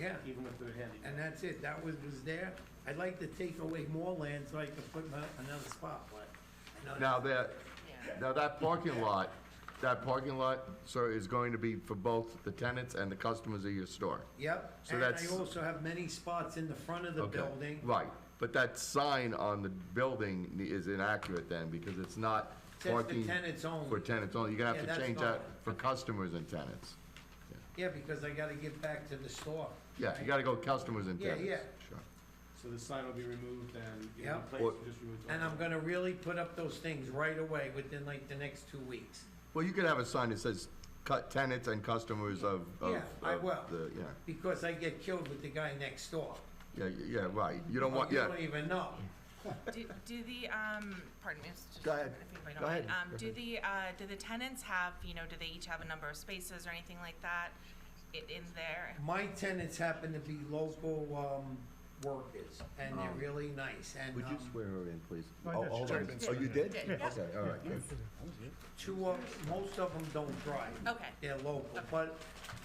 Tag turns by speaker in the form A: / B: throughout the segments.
A: Yeah.
B: Even if they're
A: And
B: handicapped.
A: that's it, that was, was there. I'd like to take away more land so I can put my- another spot, but I know.
C: Now
A: that's-
C: that, now that parking lot, that parking lot, sir, is going to be for both the tenants and the customers of your store.
A: Yep,
C: So
A: and I
C: that's-
A: also have many spots in the front of the
C: Okay,
A: building.
C: Right, but that sign on the building is inaccurate then, because it's not
A: Says for
C: parking.
A: tenants only.
C: For tenants only, you're gonna
A: Yeah,
C: have
A: that's
C: to change that
A: fine.
C: for customers and tenants.
A: Yeah, because I gotta get back to the store.
C: Yeah, you gotta go customers and
A: Yeah,
C: tenants.
A: yeah.
C: Sure.
B: So the sign will be removed and you
A: Yeah.
B: know, replaced, you just remove.
A: And I'm gonna really put up those things right away within like the next two weeks.
C: Well, you could have a sign that says cut tenants and customers of. of-
A: Yeah, I
C: of
A: will.
C: the- Yeah,
A: Because I get killed with the guy next door.
C: yeah, yeah, right, you don't want, yeah.
A: You don't even know.
D: Do, do the, um, pardon me, it's just.
C: Go ahead.
D: if anybody
C: Go
D: don't mind.
C: ahead.
D: Um, do the, uh, do the tenants have, you know, do they each have a number of spaces or anything like that i- in there?
A: My tenants happen to be local, um, workers, and they're really nice, and,
C: Oh. Would you
A: um,
C: swear her in, please?
E: I
C: Oh,
E: did.
C: hold on.
E: Did.
C: Oh, you did?
D: Did, yeah.
C: Okay, all right, good.
A: two of, most of them don't drive.
D: Okay.
A: They're local, but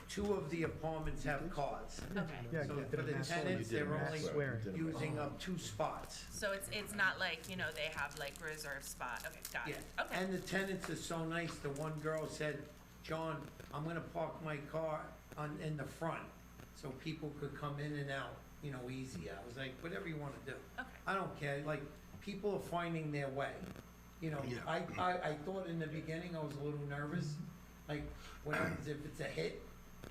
A: two of the apartments have cars.
D: Okay,
E: Yeah,
A: So
E: you
A: for
E: did a
A: the
E: mass-
A: tenants,
C: You did a
A: they're
C: mass
A: only
C: swear. You did a mass
A: using up two spots.
D: so it's, it's not like, you know, they have like reserved spot, okay, got
A: Yeah,
D: it, okay.
A: and the tenants are so nice, the one girl said, John, I'm gonna park my car on, in the front, so people could come in and out, you know, easy, I was like, whatever you wanna do.
D: Okay.
A: I don't care, like, people are finding their way, you know, I, I, I thought in the beginning, I was a little nervous, like, what happens if it's a hit?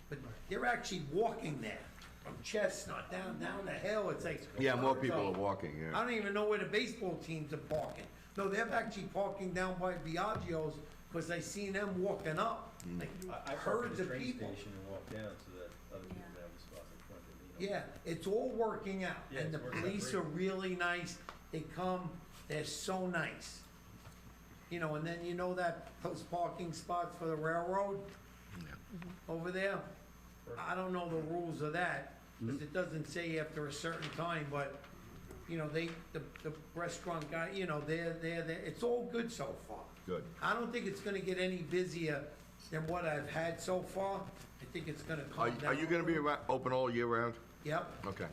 A: But they're actually walking there, from Chestnut down, down the hill, it's like.
C: Yeah, more people are
A: So-
C: walking, yeah.
A: I don't even know where the baseball teams are parking. No, they're actually parking down by Biagio's, because I seen them walking up, like
B: I parked at
A: herds
B: the
A: of
B: train
A: people.
B: station and walked down so that other people have a spot in front of me.
A: Yeah, it's all working out,
B: Yeah,
A: and
B: it's
A: the
B: working out
A: police
B: great.
A: are really nice, they come, they're so nice. You know, and then you know that, those parking spots for the railroad over there? I don't know the rules of that,
C: Mm-hmm.
A: because it doesn't say after a certain time, but, you know, they, the, the restaurant guy, you know, they're, they're, they're- it's all good so far.
C: Good.
A: I don't think it's gonna get any busier than what I've had so far, I think it's gonna
C: Are,
A: calm down.
C: are you gonna be around, open all year round?
A: Yep.
C: Okay.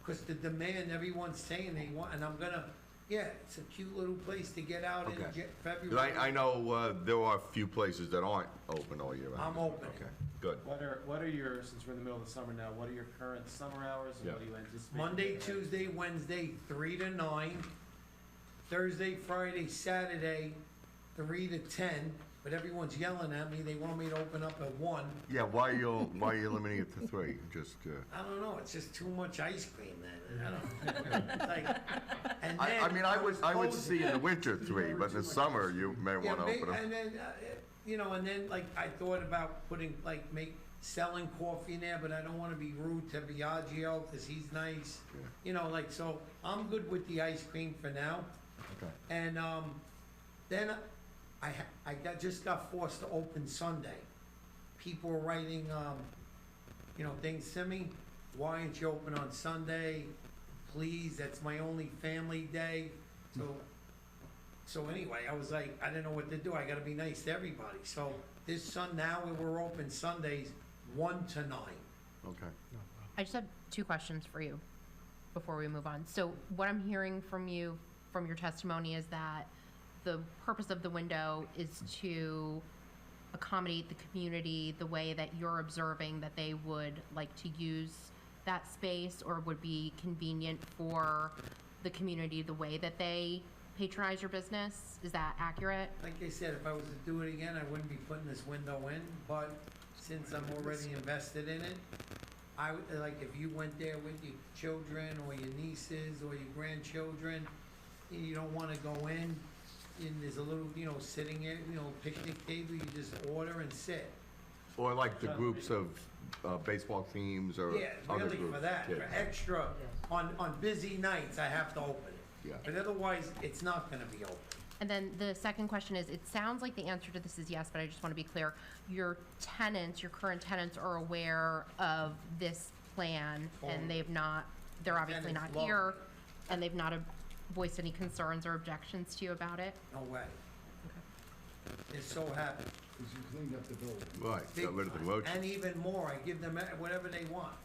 A: Because the demand, everyone's saying they want, and I'm gonna, yeah, it's a cute little place to get out in
C: Okay.
A: Ja-
C: 'Cause I,
A: February.
C: I know, uh, there are a few places that aren't open all year round.
A: I'm open.
C: Okay, good.
B: What are, what are your, since we're in the middle of the summer now, what are your current summer hours and
C: Yeah.
B: what do you anticipate?
A: Monday, Tuesday, Wednesday, three to nine. Thursday, Friday, Saturday, three to ten, but everyone's yelling at me, they want me to open up at one.
C: Yeah, why you, why are you limiting it to three? Just, uh,
A: I don't know, it's just too much ice cream then, I don't. it's like- and
C: I, I
A: then
C: mean, I would,
A: was
C: I would
A: told-
C: see in the winter three, but in the summer, you may
A: Yeah,
C: wanna
A: may-
C: open them.
A: and then, uh, you know, and then, like, I thought about putting, like, make, selling coffee in there, but I don't wanna be rude to Biagio, cause he's nice. You know, like, so, I'm good with the ice cream for now,
C: Okay.
A: and, um, then I, ha- I got, just got forced to open Sunday. People were writing, um, you know, things to me, why aren't you open on Sunday? Please, that's my only family day, so so anyway, I was like, I didn't know what to do. I gotta be nice to everybody. So this Sun now we we're open Sundays one to nine.
C: Okay.
F: I just have two questions for you before we move on. So what I'm hearing from you, from your testimony, is that the purpose of the window is to accommodate the community the way that you're observing that they would like to use that space or would be convenient for the community the way that they patronize your business? Is that accurate?
A: Like I said, if I was to do it again, I wouldn't be putting this window in, but since I'm already invested in it, I would, like, if you went there with your children or your nieces or your grandchildren, and you don't wanna go in, and there's a little, you know, sitting area, you know, picnic table, you just order and sit.
C: Or like the groups of, uh, baseball teams or
A: Yeah,
C: other
A: really
C: groups.
A: for that, for
C: yeah.
A: extra, on, on busy nights, I have to open it.
C: Yeah.
A: But otherwise, it's not gonna be open.
F: And then the second question is, it sounds like the answer to this is yes, but I just want to be clear. Your tenants, your current tenants are aware of this plan and they've not, they're obviously not
A: Tenants love
F: here.
A: it.
F: And they've not uh, voiced any concerns or objections to you about it?
A: No way. They're so happy.
E: Because you cleaned up the building.
C: Right, got rid of the
A: Big
C: roach.
A: time. And even more, I give them whatever they want.